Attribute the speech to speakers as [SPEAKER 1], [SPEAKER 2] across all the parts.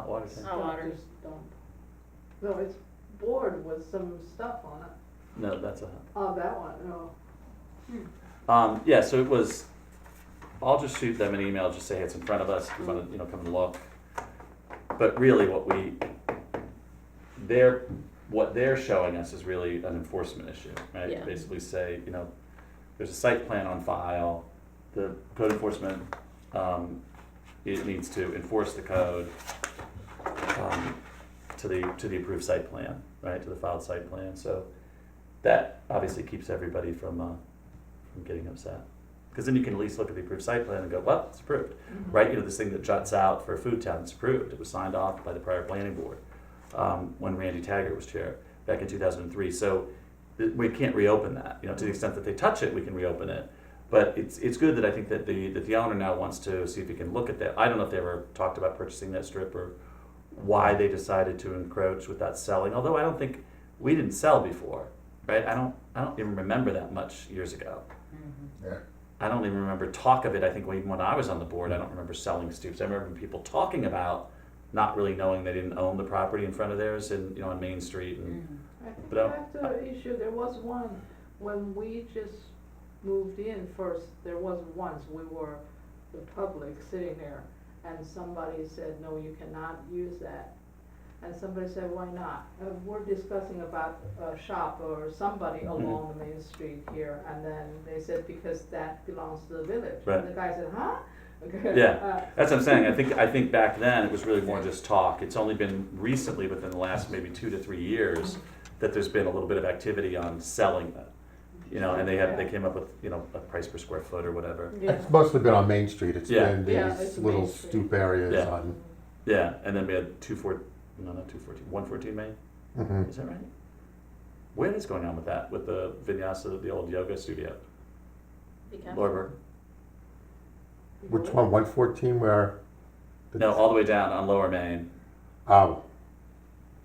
[SPEAKER 1] water
[SPEAKER 2] It's
[SPEAKER 1] tank.
[SPEAKER 3] Oh.
[SPEAKER 2] not water.
[SPEAKER 3] Doctor's dump. No, it's board with some stuff on it.
[SPEAKER 1] No, that's a.
[SPEAKER 3] Oh, that one, oh.
[SPEAKER 1] Um, yeah, so it was, I'll just shoot them an email, just say it's in front of us, if you wanna, you know, come and look. But really what we, they're, what they're showing us is really an enforcement issue, right?
[SPEAKER 2] Yeah.
[SPEAKER 1] Basically say, you know, there's a site plan on file, the code enforcement, um, it needs to enforce the code, um, to the, to the approved site plan, right, to the filed site plan, so that obviously keeps everybody from, uh, from getting upset. Because then you can at least look at the approved site plan and go, well, it's approved, right? You know, this thing that juts out for Food Town, it's approved. It was signed off by the prior planning board um, when Randy Taggart was chair back in 2003. So th- we can't reopen that. You know, to the extent that they touch it, we can reopen it. But it's, it's good that I think that the, that the owner now wants to see if he can look at that. I don't know if they ever talked about purchasing that strip or why they decided to encroach without selling. Although I don't think we didn't sell before, right? I don't I don't even remember that much years ago.
[SPEAKER 2] Mm-hmm.
[SPEAKER 4] Yeah.
[SPEAKER 1] I don't even remember talk of it. I think even when I was on the board, I don't remember selling Stoops. I remember people talking about not really knowing they didn't own the property in front of theirs and you know on Main Street
[SPEAKER 2] Mm.
[SPEAKER 1] and
[SPEAKER 2] Mm-hmm.
[SPEAKER 3] I think
[SPEAKER 1] But, um,
[SPEAKER 3] that's the issue, there was one, when we just moved in first, there was once, we were the public sitting there, and somebody said, no, you cannot use that. And somebody said, why not? And we're discussing about a shop or somebody
[SPEAKER 1] Mm-hmm.
[SPEAKER 3] along the main street here, and then they said, because that belongs to the village.
[SPEAKER 1] Right.
[SPEAKER 3] And the guy said, huh? Uh,
[SPEAKER 1] Yeah. that's what I'm saying. I think I think back then it was really more just talk. It's only been recently within the last maybe two to three years that there's been a little bit of activity on selling that. You know, and they had they came up with you know a price per square foot or whatever.
[SPEAKER 3] Yeah.
[SPEAKER 4] It's mostly been on Main Street. It's
[SPEAKER 1] Yeah.
[SPEAKER 4] been
[SPEAKER 3] Yeah, it's
[SPEAKER 4] these little
[SPEAKER 3] Main Street.
[SPEAKER 4] stoop areas
[SPEAKER 1] Yeah.
[SPEAKER 4] on.
[SPEAKER 1] Yeah, and then we had two four no not two fourteen one fourteen Main.
[SPEAKER 4] mhm.
[SPEAKER 1] Is that right? What is going on with that, with the vinyasa, the old yoga studio?
[SPEAKER 2] Because-
[SPEAKER 1] Lorber?
[SPEAKER 4] Which one? 114 where? the-
[SPEAKER 1] No, all the way down on Lower Main.
[SPEAKER 4] Oh,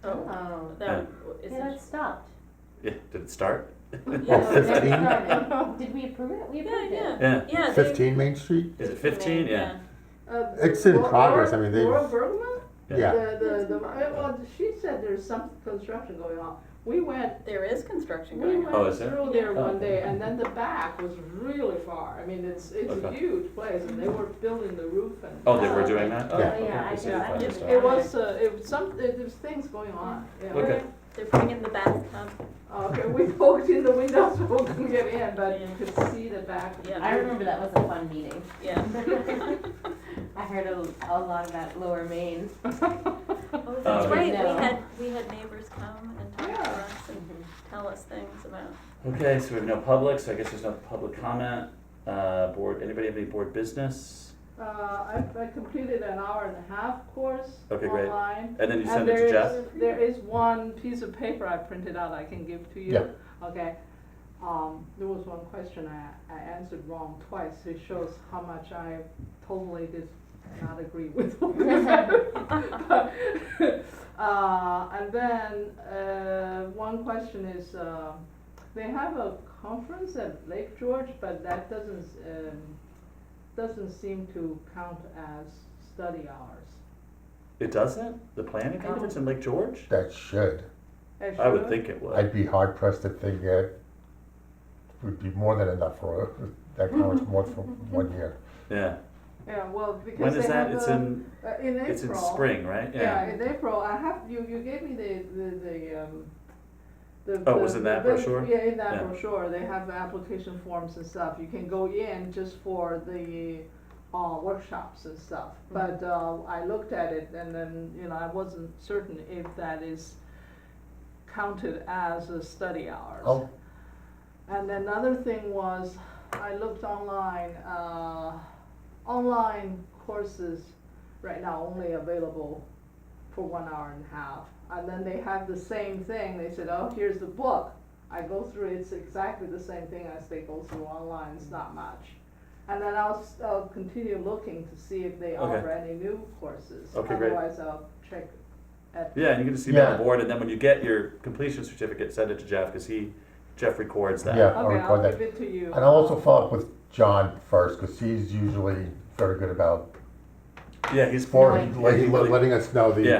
[SPEAKER 2] Oh,
[SPEAKER 5] Oh,
[SPEAKER 1] Yeah.
[SPEAKER 2] that, is
[SPEAKER 5] yeah, that
[SPEAKER 2] it,
[SPEAKER 5] stopped.
[SPEAKER 1] Yeah, did it start?
[SPEAKER 5] Yeah,
[SPEAKER 4] Oh,
[SPEAKER 5] that
[SPEAKER 4] 15?
[SPEAKER 3] Uh,
[SPEAKER 5] started. Did we approve it? We
[SPEAKER 2] yeah,
[SPEAKER 5] approved it.
[SPEAKER 2] yeah,
[SPEAKER 1] Yeah.
[SPEAKER 2] yeah. they-
[SPEAKER 4] 15 Main Street?
[SPEAKER 1] Is it fifteen? Yeah.
[SPEAKER 3] Uh,
[SPEAKER 4] It's in
[SPEAKER 3] Laura-
[SPEAKER 4] progress, I mean, they-
[SPEAKER 3] Laura Bergman?
[SPEAKER 4] Yeah.
[SPEAKER 3] The, the, the, well, she said there's some construction going on. We went,
[SPEAKER 2] There is construction
[SPEAKER 3] we
[SPEAKER 2] going on.
[SPEAKER 1] Oh,
[SPEAKER 3] went
[SPEAKER 1] is there?
[SPEAKER 3] through there
[SPEAKER 1] Oh.
[SPEAKER 3] one day, and then the back was really far. I mean, it's, it's a
[SPEAKER 1] Okay.
[SPEAKER 3] huge place, and they were building the roof and.
[SPEAKER 1] Oh, they were doing that? Oh,
[SPEAKER 4] Yeah.
[SPEAKER 1] okay.
[SPEAKER 5] Yeah, I
[SPEAKER 1] So
[SPEAKER 5] did-
[SPEAKER 1] they
[SPEAKER 5] I
[SPEAKER 1] finally
[SPEAKER 2] did-
[SPEAKER 1] started.
[SPEAKER 3] It was, uh, it was some, there- there's things going on, yeah.
[SPEAKER 1] Okay.
[SPEAKER 2] They're putting in the bathtub.
[SPEAKER 3] Okay, we poked in the windows, so we couldn't get in, but you
[SPEAKER 2] Yeah.
[SPEAKER 3] could see the back.
[SPEAKER 2] Yeah.
[SPEAKER 5] I remember that was a fun meeting.
[SPEAKER 2] Yeah.
[SPEAKER 5] I heard a, a lot about Lower Maine.
[SPEAKER 2] Oh, that's
[SPEAKER 1] Um,
[SPEAKER 2] right.
[SPEAKER 5] No.
[SPEAKER 2] We had we had neighbors come and talk to
[SPEAKER 3] Yeah.
[SPEAKER 2] us and tell us things about.
[SPEAKER 1] Okay, so we have no public, so I guess there's no public comment. Uh, board, anybody have any board business?
[SPEAKER 3] Uh, I, I completed an hour and a half course
[SPEAKER 1] Okay, great.
[SPEAKER 3] online.
[SPEAKER 1] And then you
[SPEAKER 3] And
[SPEAKER 1] send it
[SPEAKER 3] there
[SPEAKER 1] to
[SPEAKER 3] is
[SPEAKER 1] Jeff?
[SPEAKER 3] There is one piece of paper I printed out I can give to you. Okay, um, there was one question I, I answered wrong twice, it shows how much I totally did not agree with. Uh, and then, uh, one question is, uh, they have a conference at Lake George, but that doesn't, s- um, doesn't seem to count as study hours.
[SPEAKER 1] It doesn't? The planning conference in Lake George?
[SPEAKER 4] That should.
[SPEAKER 3] It
[SPEAKER 1] I would
[SPEAKER 3] should.
[SPEAKER 1] think it would.
[SPEAKER 4] I'd be hard pressed to think that would be more than enough for that conference more for one year.
[SPEAKER 1] Yeah.
[SPEAKER 3] Yeah, well, because
[SPEAKER 1] When
[SPEAKER 3] they
[SPEAKER 1] is that?
[SPEAKER 3] have
[SPEAKER 1] It's
[SPEAKER 3] a-
[SPEAKER 1] in,
[SPEAKER 3] uh, in April.
[SPEAKER 1] it's in spring, right?
[SPEAKER 3] Yeah, in April, I have, you, you gave me the, the, the, um, the.
[SPEAKER 1] Oh, it
[SPEAKER 3] the-
[SPEAKER 1] was in that
[SPEAKER 3] the-
[SPEAKER 1] brochure?
[SPEAKER 3] Yeah, in that
[SPEAKER 1] Yeah.
[SPEAKER 3] brochure, they have the application forms and stuff, you can go in just for the, uh, workshops and stuff. But, uh, I looked at it and then, you know, I wasn't certain if that is counted as a study hours.
[SPEAKER 4] Oh,
[SPEAKER 3] And another thing was, I looked online, uh, online courses right now only available for one hour and a half. And then they have the same thing, they said, oh, here's the book. I go through, it's exactly the same thing as they go through online, it's not much. And then I'll, s- I'll continue looking to see if
[SPEAKER 1] Okay.
[SPEAKER 3] they offer any new courses.
[SPEAKER 1] Okay, great.
[SPEAKER 3] Otherwise, I'll check at.
[SPEAKER 1] Yeah, and you can just email
[SPEAKER 4] Yeah.
[SPEAKER 1] the board, and then when you get your completion certificate, send it to Jeff, because he, Jeff records that.
[SPEAKER 4] Yeah. I'll
[SPEAKER 3] Okay, I'll
[SPEAKER 4] record that.
[SPEAKER 3] give it to you.
[SPEAKER 4] and I'll also follow up with John first because he's usually very good about
[SPEAKER 1] Yeah, he's
[SPEAKER 4] forwarding,
[SPEAKER 1] Yeah, he
[SPEAKER 4] letting,
[SPEAKER 1] really-
[SPEAKER 4] letting us know the
[SPEAKER 1] Yeah.